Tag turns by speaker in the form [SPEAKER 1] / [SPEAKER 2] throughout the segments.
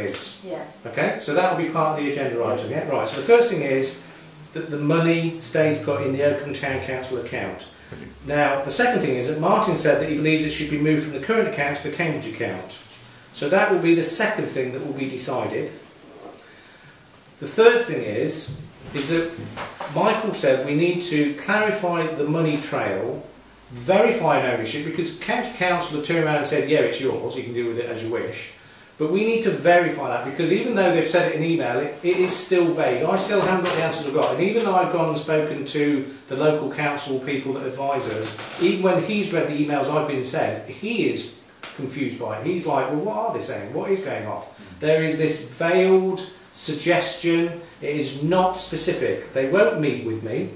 [SPEAKER 1] is.
[SPEAKER 2] Yeah.
[SPEAKER 1] Okay, so that will be part of the agenda item, yeah? Right, so the first thing is that the money stays put in the Oakham Town Council account. Now, the second thing is that Martin said that he believes it should be moved from the current account to the Cambridge account. So that will be the second thing that will be decided. The third thing is, is that Michael said we need to clarify the money trail, verify an ownership, because county council have turned around and said, yeah, it's yours, you can do with it as you wish. But we need to verify that because even though they've said it in email, it, it is still vague. I still haven't got the answers I've got. And even though I've gone and spoken to the local council people that advise us, even when he's read the emails I've been sent, he is confused by it. He's like, well, what are they saying? What is going off? There is this veiled suggestion. It is not specific. They won't meet with me,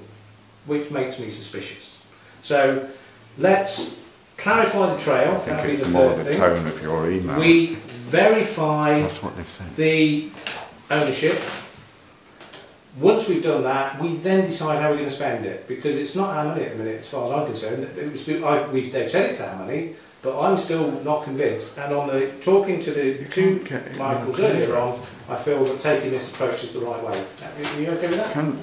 [SPEAKER 1] which makes me suspicious. So let's clarify the trail.
[SPEAKER 3] I
[SPEAKER 1] That'd
[SPEAKER 3] think
[SPEAKER 1] be the
[SPEAKER 3] it's more
[SPEAKER 1] third
[SPEAKER 3] the
[SPEAKER 1] thing.
[SPEAKER 3] tone of your emails.
[SPEAKER 1] We verify
[SPEAKER 3] That's what they've said.
[SPEAKER 1] the ownership. Once we've done that, we then decide how we're going to spend it because it's not our money at the minute, as far as I'm concerned. It was, I, we, they've said it's our money, but I'm still not convinced. And on the talking to the two
[SPEAKER 3] can't get it
[SPEAKER 1] Michaels
[SPEAKER 3] in the
[SPEAKER 1] earlier on, I feel that taking this approach is the right way. Are you okay with that?
[SPEAKER 3] Can,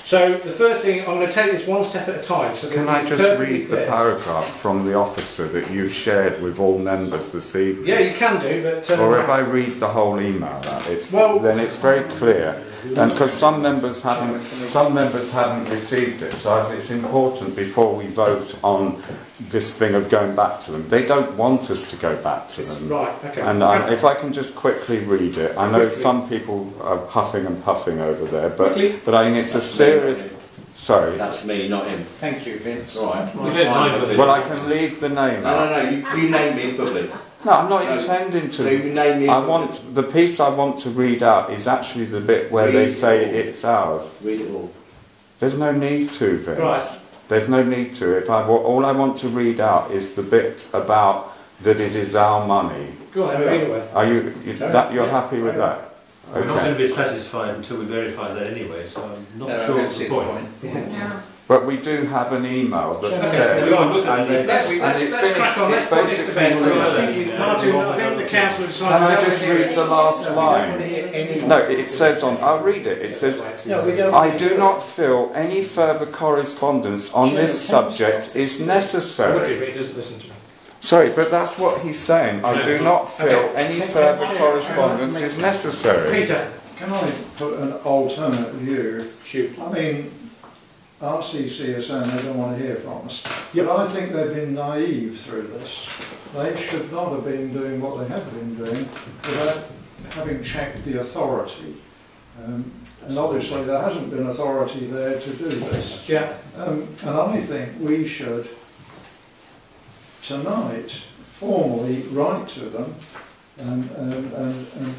[SPEAKER 1] So the first thing I'm going to take this one step at a time. So that
[SPEAKER 3] can I
[SPEAKER 1] it's
[SPEAKER 3] just
[SPEAKER 1] perfectly
[SPEAKER 3] read the
[SPEAKER 1] clear.
[SPEAKER 3] paragraph from the officer that you've shared with all members this evening?
[SPEAKER 1] Yeah, you can do, but um,
[SPEAKER 3] Or if I read the whole email out, it's,
[SPEAKER 1] Well-
[SPEAKER 3] then it's very clear. And because some members haven't, some members haven't received it, so I think it's important before we vote on this thing of going back to them. They don't want us to go back to
[SPEAKER 1] it's-
[SPEAKER 3] them.
[SPEAKER 1] right, okay.
[SPEAKER 3] And um, I, if I can just quickly read it, I know
[SPEAKER 1] Quickly.
[SPEAKER 3] some people are huffing and puffing over there, but,
[SPEAKER 1] Quickly.
[SPEAKER 3] but I think it's a serious. Sorry.
[SPEAKER 4] That's me, not him.
[SPEAKER 5] Thank you, Vince.
[SPEAKER 4] All right.
[SPEAKER 6] We don't mind whether-
[SPEAKER 3] Well, I can leave the name
[SPEAKER 4] No,
[SPEAKER 3] out.
[SPEAKER 4] no, no. You, you name me in public.
[SPEAKER 3] No, I'm not
[SPEAKER 4] No.
[SPEAKER 3] intending
[SPEAKER 4] So you
[SPEAKER 3] to.
[SPEAKER 4] name me. in
[SPEAKER 3] I
[SPEAKER 4] public.
[SPEAKER 3] want the piece I want to read out is actually the bit where they
[SPEAKER 4] Read
[SPEAKER 3] say
[SPEAKER 4] all.
[SPEAKER 3] it's ours.
[SPEAKER 4] Read it all.
[SPEAKER 3] There's no need to, Vince.
[SPEAKER 1] Right.
[SPEAKER 3] There's no need to. If I wa- all I want to read out is the bit about that it is our money.
[SPEAKER 1] Go on, anyway.
[SPEAKER 3] Are you, you that you're happy with that?
[SPEAKER 6] We're not going
[SPEAKER 3] Okay.
[SPEAKER 6] to be satisfied until we verify that anyway, so I'm not
[SPEAKER 5] No, I
[SPEAKER 6] sure
[SPEAKER 5] don't
[SPEAKER 6] it's
[SPEAKER 5] see
[SPEAKER 6] the
[SPEAKER 5] the
[SPEAKER 6] point.
[SPEAKER 5] point.
[SPEAKER 2] Now,
[SPEAKER 3] But we do have an email that
[SPEAKER 1] Okay,
[SPEAKER 3] says.
[SPEAKER 1] we are
[SPEAKER 6] looking at
[SPEAKER 3] and
[SPEAKER 6] it.
[SPEAKER 3] it-
[SPEAKER 1] Let's,
[SPEAKER 3] and
[SPEAKER 1] let's,
[SPEAKER 3] it
[SPEAKER 1] let's
[SPEAKER 3] finished-
[SPEAKER 1] crack on. Let's
[SPEAKER 3] it
[SPEAKER 1] put this to
[SPEAKER 3] basically
[SPEAKER 1] bed.
[SPEAKER 3] finished.
[SPEAKER 1] I think, Martin, I think the council have
[SPEAKER 3] Can I
[SPEAKER 1] decided.
[SPEAKER 3] just read the last line?
[SPEAKER 5] Anyone?
[SPEAKER 3] No, it says on. I'll read it. It says.
[SPEAKER 5] No, we don't.
[SPEAKER 3] I do not feel any further correspondence on this subject is
[SPEAKER 1] I would do,
[SPEAKER 3] necessary.
[SPEAKER 1] but it doesn't listen to me.
[SPEAKER 3] Sorry, but that's what he's saying. I do not feel any further correspondence is necessary.
[SPEAKER 1] Peter,
[SPEAKER 7] Can I put an alternate view?
[SPEAKER 1] shoot.
[SPEAKER 7] I mean, RCC is saying they don't want to hear from us.
[SPEAKER 1] Yep.
[SPEAKER 7] But I think they've been naive through this. They should not have been doing what they have been doing without having checked the authority. Um, and obviously there hasn't been authority there to do this.
[SPEAKER 1] Yeah.
[SPEAKER 7] Um, and I think we should tonight formally write to them and, and, and, and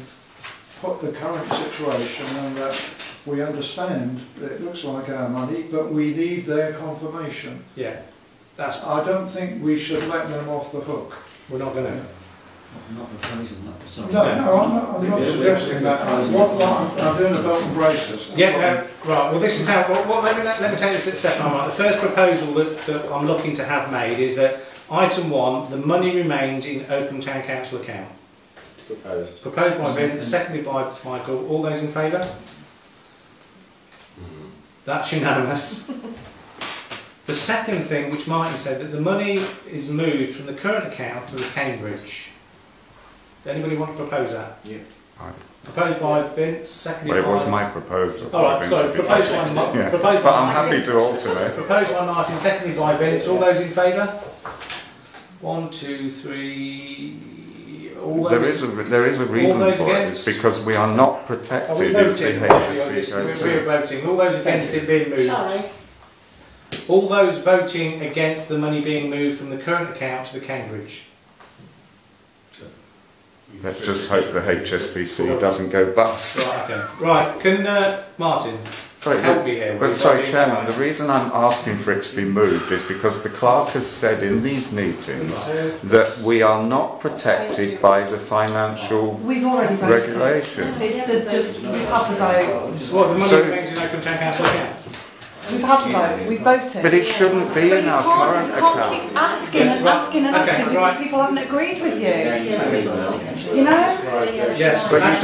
[SPEAKER 7] put the current situation and that we understand that it looks like our money, but we need their confirmation.
[SPEAKER 1] Yeah. That's,
[SPEAKER 7] I don't think we should let them off the hook.
[SPEAKER 1] we're not going to.
[SPEAKER 5] Not proposing that, sorry.
[SPEAKER 7] No, no, I'm not, I'm not
[SPEAKER 5] Yeah.
[SPEAKER 7] suggesting that. What, what, I'm doing a belt and braces. That's
[SPEAKER 1] Yeah,
[SPEAKER 7] what I'm-
[SPEAKER 1] no, right. Well, this is how. Well, well, let, me, let, let me take this step by step. The first proposal that, that I'm looking to have made is that item one, the money remains in Oakham Town Council account.
[SPEAKER 4] Proposed.
[SPEAKER 1] Proposed by Vin, seconded by Michael. All those in favour? That's unanimous. the second thing, which Martin said, that the money is moved from the current account to the Cambridge. Does anybody want to propose that?
[SPEAKER 4] Yeah.
[SPEAKER 3] Aye.
[SPEAKER 1] Proposed by Vince, seconded
[SPEAKER 3] Well, it
[SPEAKER 1] by.
[SPEAKER 3] was my proposal.
[SPEAKER 1] All right,
[SPEAKER 3] Vince,
[SPEAKER 1] sorry.
[SPEAKER 3] if it's-
[SPEAKER 1] Proposed by, Ma-
[SPEAKER 3] Yeah.
[SPEAKER 1] proposed by
[SPEAKER 3] But I'm
[SPEAKER 1] Martin.
[SPEAKER 3] happy to alternate.
[SPEAKER 1] Proposed by Martin, seconded by Vince. All those in favour? One, two, three. All those
[SPEAKER 3] There is a, there is a reason
[SPEAKER 1] those
[SPEAKER 3] for it,
[SPEAKER 1] against?
[SPEAKER 3] it's because we are not
[SPEAKER 1] Are we
[SPEAKER 3] protected if the
[SPEAKER 1] voting? Are we-
[SPEAKER 3] HSC
[SPEAKER 1] We're
[SPEAKER 3] goes
[SPEAKER 1] we're
[SPEAKER 3] through.
[SPEAKER 1] voting. All those against it being moved.
[SPEAKER 2] sorry.
[SPEAKER 1] All those voting against the money being moved from the current account to the Cambridge.
[SPEAKER 3] Let's just hope the HSBC doesn't go bust.
[SPEAKER 1] Right, okay. Right, can uh, Martin
[SPEAKER 3] Sorry,
[SPEAKER 1] help
[SPEAKER 3] but,
[SPEAKER 1] me here?
[SPEAKER 3] but
[SPEAKER 1] We've
[SPEAKER 3] sorry,
[SPEAKER 1] got the-
[SPEAKER 3] Chairman, the reason I'm asking for it to be moved is because the clerk has said in these meetings that we are not protected by the financial
[SPEAKER 8] We've already voted.
[SPEAKER 3] regulation.
[SPEAKER 8] It's the, the, we've had the vote.
[SPEAKER 1] What, the money
[SPEAKER 3] So-
[SPEAKER 1] remains in Oakham Town Council account?
[SPEAKER 2] We've had vote, we voted.
[SPEAKER 3] But it shouldn't be
[SPEAKER 2] But
[SPEAKER 3] in
[SPEAKER 2] you
[SPEAKER 3] our
[SPEAKER 2] can't,
[SPEAKER 3] current
[SPEAKER 2] you can't
[SPEAKER 3] account.
[SPEAKER 2] keep asking and asking and
[SPEAKER 1] Okay,
[SPEAKER 2] asking
[SPEAKER 1] right.
[SPEAKER 2] because people haven't agreed with you.
[SPEAKER 4] Yeah.
[SPEAKER 2] You know?
[SPEAKER 1] Yes,
[SPEAKER 3] But you